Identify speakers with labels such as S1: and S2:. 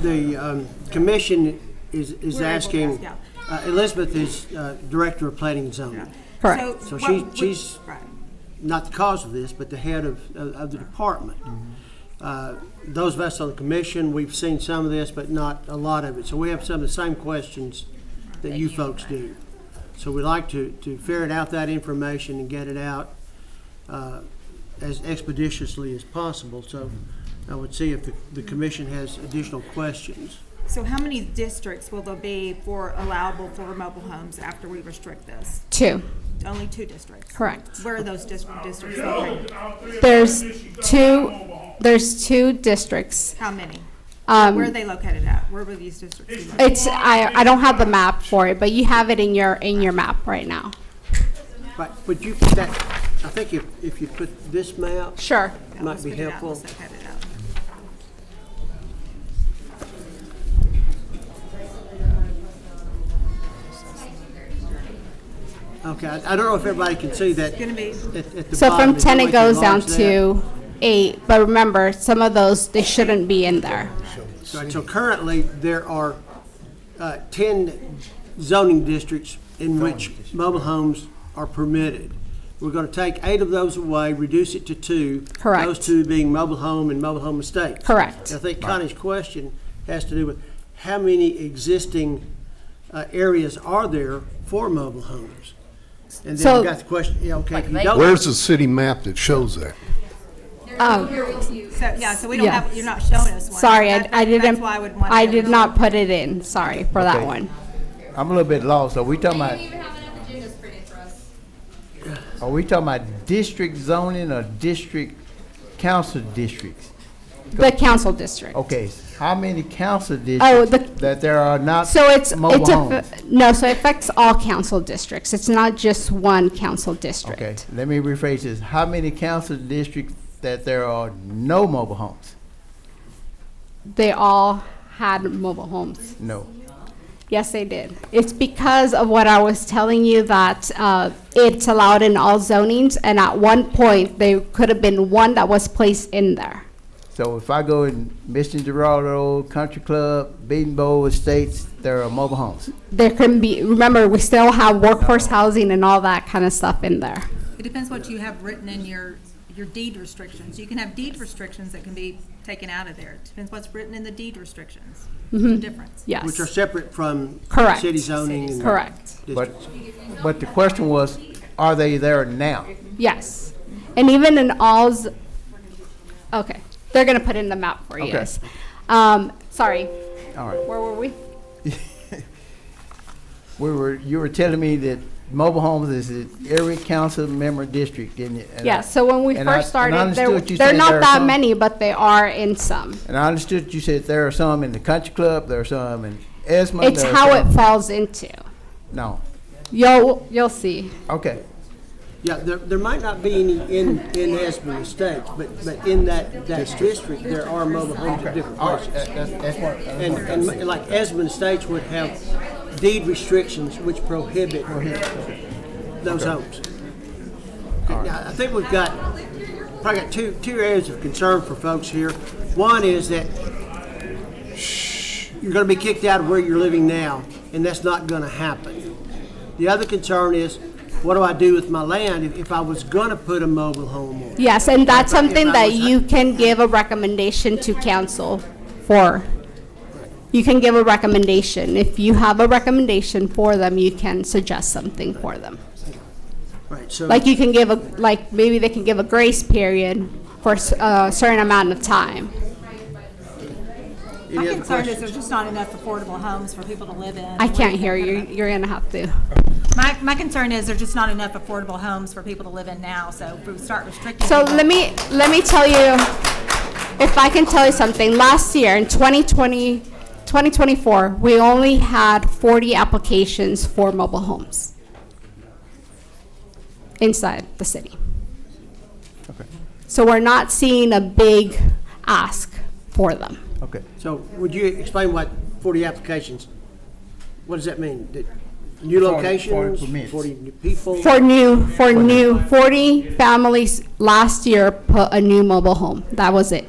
S1: The um, commission is, is
S2: We're able to ask,
S1: asking,
S2: yeah.
S1: uh, Elizabeth is uh, Director of Planning and Zoning,
S3: Correct.
S1: So
S2: what
S1: she-
S2: would-
S1: she's-
S2: Right.
S1: not the cause of this, but the head of, of of the department. Uh, Those of us on the commission, we've seen some of this, but not a lot of it. So we have some of the same questions that you folks do. So we'd like to, to ferret out that information and get it out uh, as expeditiously as possible. So I would see if the, the commission has additional questions.
S2: So how many districts will there be for allowable for mobile homes after we restrict this?
S3: Two.
S2: Only two districts?
S3: Correct.
S2: Where are those dis- districts located?
S3: There's two. There's two districts.
S2: How many? Where are
S3: Um,
S2: they located at? Where were these districts? be located?
S3: it's I, I don't have the map for it, but you have it in your in your map right now.
S1: Right, would you put that, I think if, if you put this map,
S3: Sure.
S2: Now,
S1: might
S2: let's
S1: be
S2: figure it out.
S1: helpful.
S2: Let's look at it out.
S1: Okay, I I don't know if everybody can see that.
S2: Gonna be-
S1: at- at the
S3: So
S1: bottom.
S3: from
S1: Is
S3: ten
S1: there
S3: it
S1: a way
S3: goes down
S1: enlarge that?
S3: to eight, but remember some of those they shouldn't be in there.
S1: Right, So currently, there are uh, 10 zoning districts in which mobile homes are permitted. We're going to take eight of those away, reduce it to two.
S3: Correct.
S1: Those two being mobile home and mobile home estates.
S3: Correct.
S1: I think Connie's question has to do with how many existing uh, areas are there for mobile homes? And then
S3: So-
S1: we got the question, yeah, okay, if you
S4: Like
S1: don't.
S5: Where's the city map that shows that?
S2: So, yeah, so we don't
S3: Yeah.
S2: have, you're not showing us one.
S3: Um, Sorry, I,
S2: That-
S3: I
S2: That's
S3: didn't.
S2: why I would want.
S3: I
S2: to-
S3: did not put it in. Sorry for that
S4: Okay.
S3: one.
S4: I'm a little bit lost. Are we talking
S6: They
S4: about,
S6: didn't even have enough agendas printed for us.
S4: are we talking about district zoning or district council districts?
S3: The council district.
S4: Okay, how many council
S3: Oh, the-
S4: districts that there are not
S3: So it's
S4: mobile
S3: it's a,
S4: homes?
S3: no. So it affects all council districts. It's not just one council district.
S4: Okay, let me rephrase this. How many council districts that there are no mobile homes?
S3: They all had mobile homes.
S4: No.
S3: Yes, they did. It's because of what I was telling you that uh, it's allowed in all zonings, and at one point there could have been one that was placed in there.
S4: So if I go in Mission Gerardo, Country Club, Baden Bowl Estates, there are mobile homes.
S3: There can be. Remember, we still have workforce housing and all that kind of stuff in there.
S7: It depends what you have written in your, your deed restrictions. You can have deed restrictions that can be taken out of there. It Depends what's written in the deed restrictions. There's
S3: Mm-hmm.
S7: a difference.
S3: Yes.
S1: Which are separate from.
S3: Correct.
S1: City zoning. and
S3: Correct.
S4: But,
S1: districts.
S4: but the question was, are they there now?
S3: Yes. And even in all's, okay, they're going to put in the map for you
S4: Okay.
S3: guys. Um, sorry,
S4: All right.
S3: where were we?
S4: We were, you were telling me that mobile homes is in every council member district, didn't you? And I-
S3: Yeah, so when we
S4: and I-
S3: first
S4: and I
S3: started, there,
S4: understood you
S3: they're
S4: said there
S3: not
S4: are
S3: that
S4: some-
S3: many, but they are in some.
S4: And I understood you said there are some in the country club, there are some in Esmond.
S3: It's how it falls into.
S4: No,
S3: You'll, you'll see.
S4: okay,
S1: Yeah, there, there might not be any in, in Aspen Estates, but, but in that, that district, there are mobile homes of different
S4: all right,
S1: places.
S4: that- that's, that's what.
S1: And, and like Aspen Estates would have deed restrictions which prohibit those homes. Now, I think we've got, probably got two, two areas of concern for folks here. One is that you're gonna be kicked out of where you're living now, and that's not gonna happen. The other concern is, what do I do with my land if, if I was gonna put a mobile home on? it?
S3: Yes, and that's
S1: If I- if
S3: something
S1: I
S3: that
S1: was-
S3: you can give a recommendation to council for. You can give a recommendation. If you have a recommendation for them, you can suggest something for them.
S1: Right, so.
S3: Like you can give a, like maybe they can give a grace period for s- uh, a certain amount of time.
S1: Any
S7: My
S1: other
S7: concern is
S1: questions?
S7: there's just not enough affordable homes for people to live in.
S3: I can't hear you, you're gonna have to.
S7: My, my concern is there's just not enough affordable homes for people to live in now, so if we start restricting.
S3: So
S7: people-
S3: let me, let me tell you, if I can tell you something, last year in 2020, 2024, we only had 40 applications for mobile homes inside the city.
S4: Okay,
S3: So we're not seeing a big ask for them.
S4: okay.
S1: So would you explain what 40 applications, what does that mean? That New locations?
S4: permits.
S1: 40 new people?
S3: For new, for new, 40 families last year put a new mobile home. That was it.